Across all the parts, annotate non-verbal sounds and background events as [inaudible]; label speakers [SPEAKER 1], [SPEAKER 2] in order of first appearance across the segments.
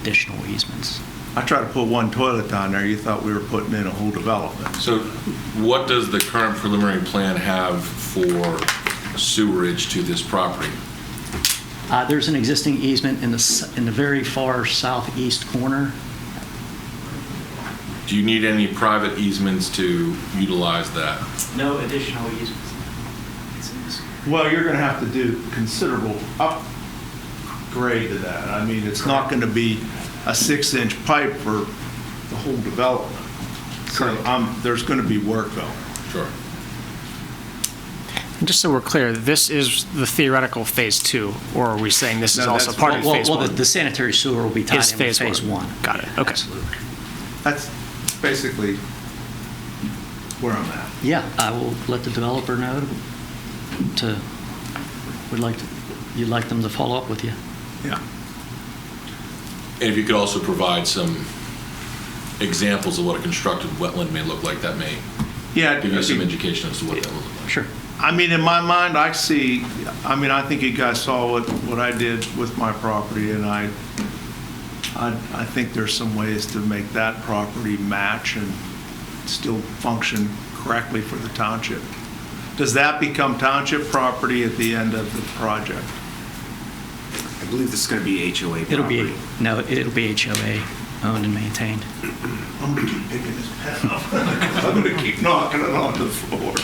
[SPEAKER 1] additional easements.
[SPEAKER 2] I tried to put one toilet down there, you thought we were putting in a whole development.
[SPEAKER 3] So what does the current preliminary plan have for sewerage to this property?
[SPEAKER 1] Uh, There's an existing easement in the, s- in the very far southeast corner.
[SPEAKER 3] Do you need any private easements to utilize that?
[SPEAKER 1] No additional easements. It's in this-
[SPEAKER 2] Well, you're going to have to do considerable upgrade to that. I mean, it's not going to be a six-inch pipe for the whole development. So um, there's going to be work going.
[SPEAKER 3] Sure.
[SPEAKER 4] Just so we're clear, this is the theoretical phase two, or are we saying this is
[SPEAKER 2] No,
[SPEAKER 4] also
[SPEAKER 2] that's
[SPEAKER 4] part
[SPEAKER 1] Well,
[SPEAKER 4] of
[SPEAKER 1] well-
[SPEAKER 4] phase
[SPEAKER 1] Well, the-
[SPEAKER 4] one?
[SPEAKER 1] the sanitary sewer will be tied
[SPEAKER 4] Is
[SPEAKER 1] in with
[SPEAKER 4] phase
[SPEAKER 1] phase
[SPEAKER 4] one.
[SPEAKER 1] one.
[SPEAKER 4] Got it.
[SPEAKER 1] Yeah,
[SPEAKER 4] Okay.
[SPEAKER 1] Absolutely.
[SPEAKER 2] That's basically where I'm at.
[SPEAKER 1] Yeah, I will let the developer know to, would like, to- you'd like them to follow up with you.
[SPEAKER 2] Yeah.
[SPEAKER 3] And if you could also provide some examples of what a constructed wetland may look like, that may
[SPEAKER 2] Yeah.
[SPEAKER 3] give you some
[SPEAKER 2] okay.
[SPEAKER 3] education as to what that would look like.
[SPEAKER 1] Sure.
[SPEAKER 2] I mean, in my mind, I see, I mean, I think you guys saw what, what I did with my property, and I, I, I think there's some ways to make that property match and still function correctly for the township. Does that become township property at the end of the project?
[SPEAKER 5] I believe this is going to be HOA property.
[SPEAKER 1] It'll be, no, it'll be HOA owned and maintained.
[SPEAKER 2] I'm gonna keep picking this pen up. I'm gonna keep knocking it onto the floor.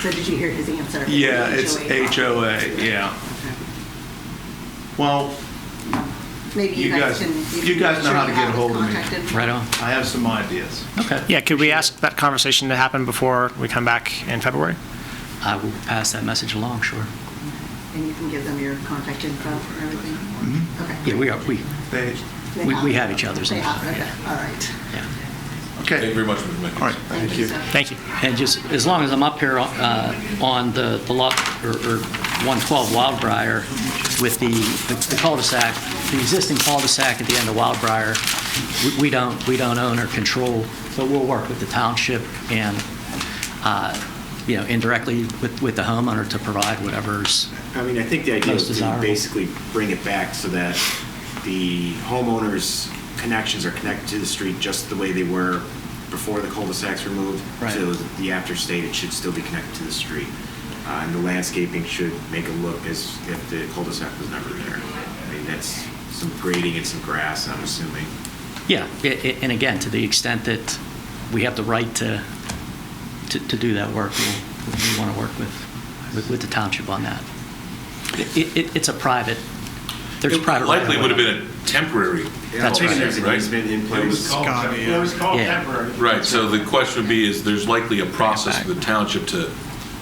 [SPEAKER 6] So did you hear his answer?
[SPEAKER 2] Yeah, it's HOA,
[SPEAKER 6] property.
[SPEAKER 2] yeah. Well,
[SPEAKER 6] Maybe
[SPEAKER 2] You
[SPEAKER 6] you
[SPEAKER 2] guys-
[SPEAKER 6] guys can.
[SPEAKER 2] you
[SPEAKER 6] can
[SPEAKER 2] guys
[SPEAKER 6] make
[SPEAKER 2] know
[SPEAKER 6] sure
[SPEAKER 2] how to
[SPEAKER 6] you
[SPEAKER 2] get
[SPEAKER 6] have
[SPEAKER 2] ahold of me.
[SPEAKER 6] contacted.
[SPEAKER 1] Right on.
[SPEAKER 2] I have some ideas.
[SPEAKER 1] Okay.
[SPEAKER 4] Yeah, could we ask that conversation to happen before we come back in February?
[SPEAKER 1] I will pass that message along, sure.
[SPEAKER 6] And you can give them your contact info and
[SPEAKER 2] Mm-hmm.
[SPEAKER 6] everything? Okay.
[SPEAKER 1] Yeah, we are, we,
[SPEAKER 2] They,
[SPEAKER 6] They
[SPEAKER 1] we- we
[SPEAKER 6] have-
[SPEAKER 1] have each other's
[SPEAKER 6] They have,
[SPEAKER 1] info,
[SPEAKER 6] okay,
[SPEAKER 1] yeah.
[SPEAKER 6] all right.
[SPEAKER 1] yeah.
[SPEAKER 2] okay.
[SPEAKER 3] Thank you very much, Mr. Mickens.
[SPEAKER 2] All right, thank you.
[SPEAKER 6] so.
[SPEAKER 4] Thank you.
[SPEAKER 1] And just, as long as I'm up here uh, on the the lot, or or 112 Wildbriar with the the cul-de-sac, the existing cul-de-sac at the end of Wildbriar, we- we don't, we don't own or control, but we'll work with the township and, uh, you know, indirectly with with the homeowner to provide whatever's,
[SPEAKER 5] I mean, I think the idea
[SPEAKER 1] Most
[SPEAKER 5] is to
[SPEAKER 1] desirable.
[SPEAKER 5] basically bring it back so that the homeowners' connections are connected to the street just the way they were before the cul-de-sacs were moved.
[SPEAKER 1] Right.
[SPEAKER 5] So the after state, it should still be connected to the street. Uh, And the landscaping should make it look as if the cul-de-sac was never there. I mean, that's some grading and some grass, I'm assuming.
[SPEAKER 1] yeah, i- i- and again, to the extent that we have the right to, to to do that work, we'll- we want to work with, with- with the township on that. It, it- it's a private, there's
[SPEAKER 3] It
[SPEAKER 1] private.
[SPEAKER 3] Likely
[SPEAKER 1] right-of-way.
[SPEAKER 3] would have been a temporary.
[SPEAKER 1] That's
[SPEAKER 5] Yeah,
[SPEAKER 1] right.
[SPEAKER 5] There's an
[SPEAKER 3] Right.
[SPEAKER 5] easement in
[SPEAKER 2] It was
[SPEAKER 5] place.
[SPEAKER 2] called temporary. It was called
[SPEAKER 1] Yeah.
[SPEAKER 2] temporary.
[SPEAKER 3] Right, so the question would be, is there's likely a process for the township to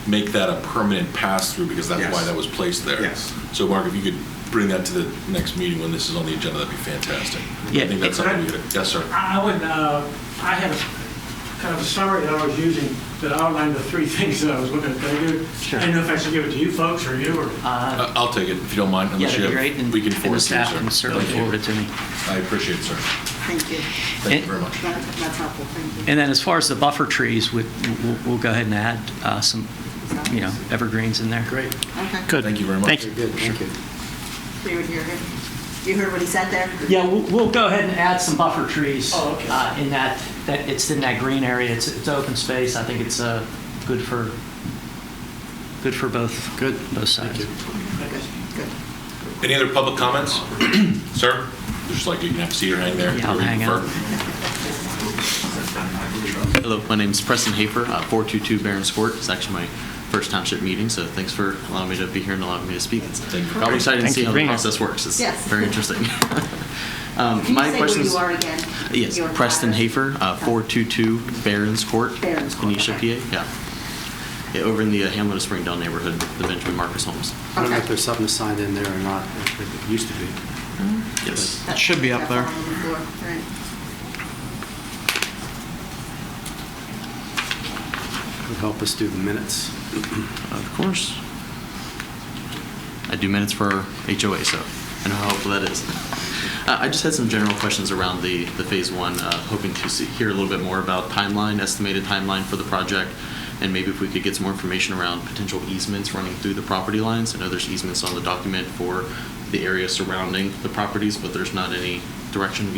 [SPEAKER 3] make that a permanent pass-through, because that's why
[SPEAKER 5] Yes.
[SPEAKER 3] that was placed there.
[SPEAKER 5] Yes.
[SPEAKER 3] So Mark, if you could bring that to the next meeting when this is on the agenda, that'd be fantastic.
[SPEAKER 1] Yeah.
[SPEAKER 3] I think that's something we could, yes, sir.
[SPEAKER 7] I I would, uh, I had a kind of a summary that I was using that outlined the three [laughs] things that I was looking at. Can I do- I didn't know if I should give it to you folks or you or...
[SPEAKER 3] Uh, I'll take it, if you don't mind,
[SPEAKER 1] Yeah,
[SPEAKER 3] unless
[SPEAKER 1] that'd
[SPEAKER 3] you
[SPEAKER 1] be
[SPEAKER 3] have,
[SPEAKER 1] great, and
[SPEAKER 3] we can
[SPEAKER 1] and
[SPEAKER 3] forward
[SPEAKER 1] the
[SPEAKER 3] it to you,
[SPEAKER 1] staff
[SPEAKER 3] sir.
[SPEAKER 1] can certainly
[SPEAKER 3] Thank you.
[SPEAKER 1] forward it to me.
[SPEAKER 3] I appreciate it, sir.
[SPEAKER 6] Thank you.
[SPEAKER 3] Thank
[SPEAKER 1] And-
[SPEAKER 3] you very much.
[SPEAKER 6] That- That's helpful, thank you.
[SPEAKER 1] And then as far as the buffer trees, we- we'll we'll go ahead and add uh, some, you know, evergreens in there. Great.
[SPEAKER 6] Okay.
[SPEAKER 4] Good.
[SPEAKER 3] Thank you very much.
[SPEAKER 4] Thank you.
[SPEAKER 6] You would hear him. You heard what he said there?
[SPEAKER 1] Yeah, we'll- we'll go ahead and add some buffer trees.
[SPEAKER 7] Oh, okay.
[SPEAKER 1] uh, In that, that, it's in that green area, it's, it's open space, I think it's uh, good for, good for both. Good. Both sides.
[SPEAKER 6] Good, good.
[SPEAKER 3] Any other public comments? [clears throat] Sir? Just like you can have a seat or hang there.
[SPEAKER 1] Yeah, I'll hang out.
[SPEAKER 8] Hello, my name's Preston Hafer, uh, 422 Barron's Court. It's actually my first township meeting, so thanks for allowing me to be here and allowing me to speak. It's-
[SPEAKER 3] Thank you.
[SPEAKER 8] I'm excited to
[SPEAKER 4] Thank
[SPEAKER 8] see
[SPEAKER 4] you
[SPEAKER 8] how
[SPEAKER 4] for being
[SPEAKER 8] the
[SPEAKER 4] here.
[SPEAKER 8] process works. It's
[SPEAKER 6] Yes.
[SPEAKER 8] very interesting.
[SPEAKER 6] [laughs]
[SPEAKER 8] Um,
[SPEAKER 6] Can you
[SPEAKER 8] My
[SPEAKER 6] say who
[SPEAKER 8] questions-
[SPEAKER 6] you are again?
[SPEAKER 8] Yes,
[SPEAKER 6] Your
[SPEAKER 8] Preston
[SPEAKER 6] address?
[SPEAKER 8] Hafer, uh,
[SPEAKER 6] Okay.
[SPEAKER 8] 422 Barron's Court.
[SPEAKER 6] Barron's Court,
[SPEAKER 8] Kenesha, PA,
[SPEAKER 6] okay.
[SPEAKER 8] yeah. yeah. Over in the uh, Hamlet of Springdale neighborhood, the Benjamin Marcus homes.
[SPEAKER 9] I don't know if
[SPEAKER 6] Okay.
[SPEAKER 9] there's something assigned in there or not, it used to be.
[SPEAKER 8] Yes.
[SPEAKER 9] It should be up there.
[SPEAKER 6] That's on the floor, right.
[SPEAKER 9] Would help us do the minutes.
[SPEAKER 8] Of course. I do minutes for HOA, so I know how helpful that is. Uh, I just had some general questions around the, the phase one, uh, hoping to see, hear a little bit more about timeline, estimated timeline for the project, and maybe if we could get some more information around potential easements running through the property lines. I know there's easements on the document for the area surrounding the properties, but there's not any direction